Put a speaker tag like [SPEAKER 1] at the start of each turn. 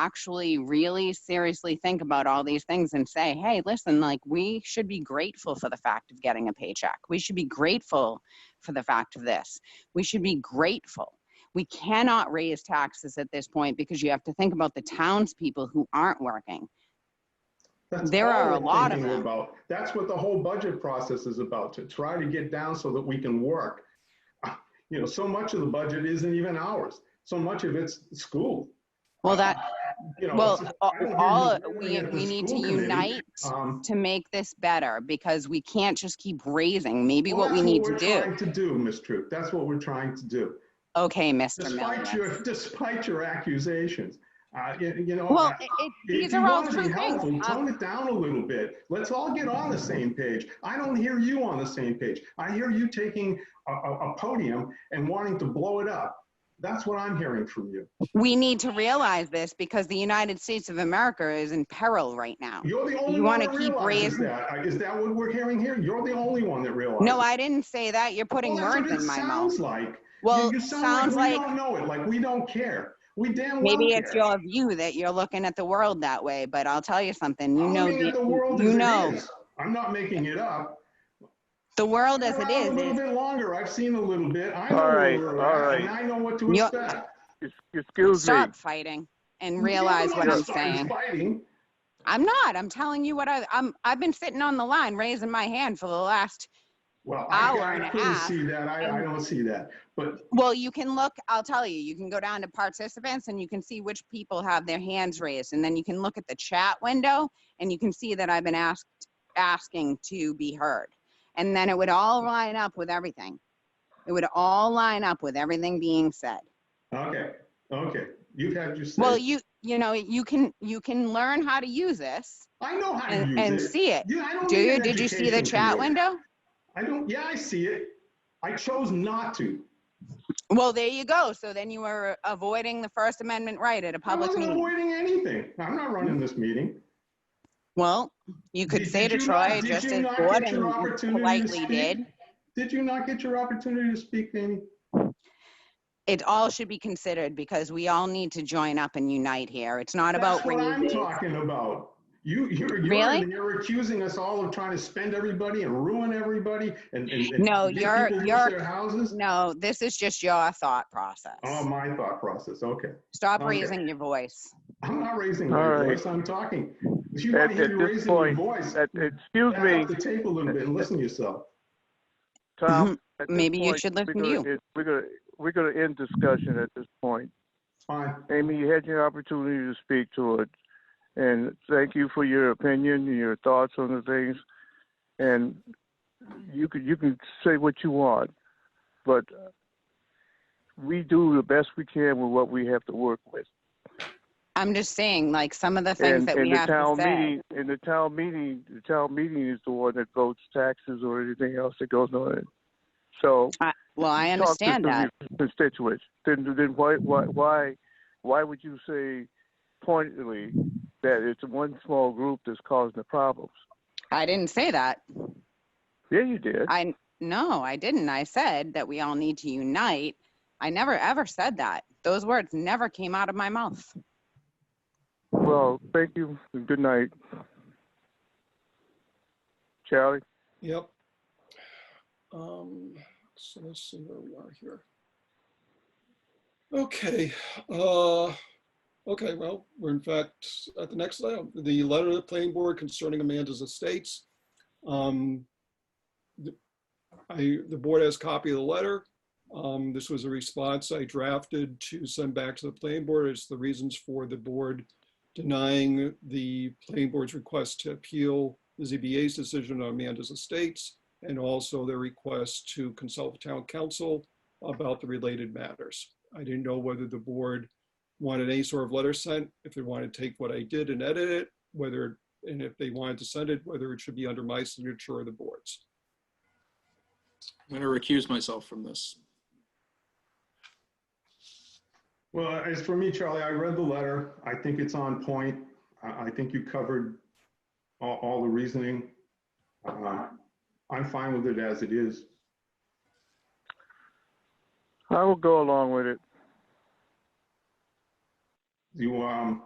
[SPEAKER 1] actually really seriously think about all these things and say, hey, listen, like we should be grateful for the fact of getting a paycheck. We should be grateful for the fact of this. We should be grateful. We cannot raise taxes at this point because you have to think about the townspeople who aren't working.
[SPEAKER 2] That's
[SPEAKER 1] There
[SPEAKER 2] all
[SPEAKER 1] are a
[SPEAKER 2] we're
[SPEAKER 1] lot of
[SPEAKER 2] thinking
[SPEAKER 1] them.
[SPEAKER 2] about. That's what the whole budget process is about, to try to get down so that we can work. You know, so much of the budget isn't even ours. So much of it's school,
[SPEAKER 1] Well, that,
[SPEAKER 2] you know.
[SPEAKER 1] well,
[SPEAKER 2] it's-
[SPEAKER 1] all-
[SPEAKER 2] I don't hear
[SPEAKER 1] all,
[SPEAKER 2] you doing
[SPEAKER 1] we,
[SPEAKER 2] it at the
[SPEAKER 1] we need to
[SPEAKER 2] school committee.
[SPEAKER 1] unite
[SPEAKER 2] Um,
[SPEAKER 1] to make this better because we can't just keep raising. Maybe
[SPEAKER 2] well,
[SPEAKER 1] what we
[SPEAKER 2] that's
[SPEAKER 1] need to
[SPEAKER 2] We're
[SPEAKER 1] do.
[SPEAKER 2] trying to do, Ms. Troop. That's what we're trying to do.
[SPEAKER 1] Okay, Mr.
[SPEAKER 2] Despite
[SPEAKER 1] Miller.
[SPEAKER 2] your, despite your accusations, uh, you you know.
[SPEAKER 1] Well,
[SPEAKER 2] I-
[SPEAKER 1] it, it,
[SPEAKER 2] If
[SPEAKER 1] these
[SPEAKER 2] you
[SPEAKER 1] are all
[SPEAKER 2] want to
[SPEAKER 1] true
[SPEAKER 2] be helpful,
[SPEAKER 1] things. Um,
[SPEAKER 2] tone it down a little bit. Let's all get on the same page. I don't hear you on the same page. I hear you taking a, a, a podium and wanting to blow it up. That's what I'm hearing from you.
[SPEAKER 1] we need to realize this because the United States of America is in peril right now.
[SPEAKER 2] You're the only
[SPEAKER 1] You
[SPEAKER 2] one
[SPEAKER 1] wanna
[SPEAKER 2] that
[SPEAKER 1] keep
[SPEAKER 2] realizes
[SPEAKER 1] raising-
[SPEAKER 2] that. Uh, Is that what we're hearing here? You're the only one that realizes.
[SPEAKER 1] No, I didn't say that. You're putting
[SPEAKER 2] Well, that's what
[SPEAKER 1] words
[SPEAKER 2] it
[SPEAKER 1] in my
[SPEAKER 2] sounds
[SPEAKER 1] mouth.
[SPEAKER 2] like. You-
[SPEAKER 1] Well,
[SPEAKER 2] you sound
[SPEAKER 1] sounds
[SPEAKER 2] We
[SPEAKER 1] like
[SPEAKER 2] don't know it, like we don't care. We damn well
[SPEAKER 1] maybe it's
[SPEAKER 2] care.
[SPEAKER 1] your view that you're looking at the world that way, but I'll tell you something. You
[SPEAKER 2] I'm
[SPEAKER 1] know,
[SPEAKER 2] looking at the
[SPEAKER 1] the-
[SPEAKER 2] world
[SPEAKER 1] you
[SPEAKER 2] as it
[SPEAKER 1] know,
[SPEAKER 2] is. I'm not making it up.
[SPEAKER 1] the world as
[SPEAKER 2] Been
[SPEAKER 1] it
[SPEAKER 2] around A little
[SPEAKER 1] is. is-
[SPEAKER 2] bit longer. I've seen a little bit. I know
[SPEAKER 3] All
[SPEAKER 2] where
[SPEAKER 3] right,
[SPEAKER 2] we're
[SPEAKER 3] all
[SPEAKER 2] at,
[SPEAKER 3] right.
[SPEAKER 2] And I know what to
[SPEAKER 1] You're-
[SPEAKER 2] expect.
[SPEAKER 3] Ex- Excuse me.
[SPEAKER 1] Stop fighting and realize
[SPEAKER 2] You
[SPEAKER 1] what
[SPEAKER 2] don't
[SPEAKER 1] I'm
[SPEAKER 2] start
[SPEAKER 1] saying.
[SPEAKER 2] Fighting.
[SPEAKER 1] I'm not. I'm telling you what I, I'm. I've been sitting on the line, raising my hand for the last.
[SPEAKER 2] Well, I,
[SPEAKER 1] Hour and
[SPEAKER 2] I
[SPEAKER 1] a
[SPEAKER 2] couldn't
[SPEAKER 1] half.
[SPEAKER 2] see that. I,
[SPEAKER 1] Um,
[SPEAKER 2] I don't see that. But
[SPEAKER 1] Well, you can look. I'll tell you. You can go down to participants, and you can see which people have their hands raised, and then you can look at the chat window, and you can see that I've been asked asking to be heard, and then it would all line up with everything. It would all line up with everything being said.
[SPEAKER 2] okay, okay. You've had your say.
[SPEAKER 1] Well, you you know you can you can learn how to use this
[SPEAKER 2] I know how to
[SPEAKER 1] and,
[SPEAKER 2] use
[SPEAKER 1] and
[SPEAKER 2] it.
[SPEAKER 1] see it.
[SPEAKER 2] You- I don't
[SPEAKER 1] Do
[SPEAKER 2] need
[SPEAKER 1] you?
[SPEAKER 2] an
[SPEAKER 1] Did you see the
[SPEAKER 2] education
[SPEAKER 1] chat
[SPEAKER 2] from you.
[SPEAKER 1] window?
[SPEAKER 2] I don't. Yeah, I see it. I chose not to.
[SPEAKER 1] Well, there you go. So then you were avoiding the First Amendment right at a
[SPEAKER 2] I
[SPEAKER 1] public
[SPEAKER 2] wasn't
[SPEAKER 1] meeting.
[SPEAKER 2] avoiding anything. I'm not running this meeting.
[SPEAKER 1] Well, you could
[SPEAKER 2] Did-
[SPEAKER 1] say
[SPEAKER 2] did
[SPEAKER 1] to
[SPEAKER 2] you not-
[SPEAKER 1] Troy,
[SPEAKER 2] did
[SPEAKER 1] just
[SPEAKER 2] you
[SPEAKER 1] as
[SPEAKER 2] not get your
[SPEAKER 1] Gordon
[SPEAKER 2] opportunity to
[SPEAKER 1] politely
[SPEAKER 2] speak?
[SPEAKER 1] did,
[SPEAKER 2] Did you not get your opportunity to speak, Amy?
[SPEAKER 1] it all should be considered because we all need to join up and unite here. It's not about
[SPEAKER 2] That's what I'm
[SPEAKER 1] raising.
[SPEAKER 2] talking about. You, you're, you're,
[SPEAKER 1] Really?
[SPEAKER 2] you're accusing us all of trying to spend everybody and ruin everybody and, and, and
[SPEAKER 1] No,
[SPEAKER 2] make
[SPEAKER 1] you're-
[SPEAKER 2] people lose
[SPEAKER 1] you're-
[SPEAKER 2] their houses.
[SPEAKER 1] No, this is just your thought process.
[SPEAKER 2] Oh, my thought process. Okay,
[SPEAKER 1] Stop
[SPEAKER 2] okay.
[SPEAKER 1] raising your voice.
[SPEAKER 2] I'm not raising
[SPEAKER 3] All
[SPEAKER 2] my
[SPEAKER 3] right.
[SPEAKER 2] voice. I'm talking. If you want
[SPEAKER 3] At-
[SPEAKER 2] to hear
[SPEAKER 3] at
[SPEAKER 2] me
[SPEAKER 3] this
[SPEAKER 2] raising your
[SPEAKER 3] point,
[SPEAKER 2] voice,
[SPEAKER 3] Uh, Excuse
[SPEAKER 2] back
[SPEAKER 3] me,
[SPEAKER 2] off the tape a little bit and listen to yourself.
[SPEAKER 3] Tom. at this
[SPEAKER 1] Mm-hmm. Maybe you
[SPEAKER 3] point,
[SPEAKER 1] should
[SPEAKER 3] we're
[SPEAKER 1] listen to
[SPEAKER 3] gonna- it- We're gonna, we're gonna end discussion at this point.
[SPEAKER 2] Fine.
[SPEAKER 3] Amy, you had your opportunity to speak to it. And thank you for your opinion and your thoughts on the things. And you can, you can say what you want, but we do the best we can with what we have to work with.
[SPEAKER 1] I'm just saying, like, some of the things
[SPEAKER 3] And,
[SPEAKER 1] that we
[SPEAKER 3] and the
[SPEAKER 1] have to
[SPEAKER 3] town
[SPEAKER 1] say.
[SPEAKER 3] meeting, and the town meeting, the town meeting is the one that votes taxes or anything else that goes on it. So.
[SPEAKER 1] Well, I understand that.
[SPEAKER 3] Talk to some of your constituents, then, then why, why, why, why would you say pointedly that it's one small group that's causing the problems?
[SPEAKER 1] I didn't say that.
[SPEAKER 3] Yeah, you did.
[SPEAKER 1] I, no, I didn't. I said that we all need to unite. I never, ever said that. Those words never came out of my mouth.
[SPEAKER 3] Well, thank you, and good night. Charlie,
[SPEAKER 4] Yep. Um, so let's see where we are here. Okay, uh, okay, well, we're in fact at the next level, the letter to the planning board concerning Amanda's estates. Um, the- I, the board has copy of the letter. Um, this was a response I drafted to send back to the planning board. It's the reasons for the board denying the planning board's request to appeal the ZBA's decision on Amanda's estates and also their request to consult with town council about the related matters. I didn't know whether the board wanted any sort of letter sent, if they wanted to take what I did and edit it, whether, and if they wanted to send it, whether it should be under my signature or the board's.
[SPEAKER 5] I'm going to recuse myself from this.
[SPEAKER 2] Well, as for me, Charlie, I read the letter. I think it's on point. I, I think you covered all, all the reasoning. Uh, I'm fine with it as it is.
[SPEAKER 3] I will go along with it.
[SPEAKER 2] You, um,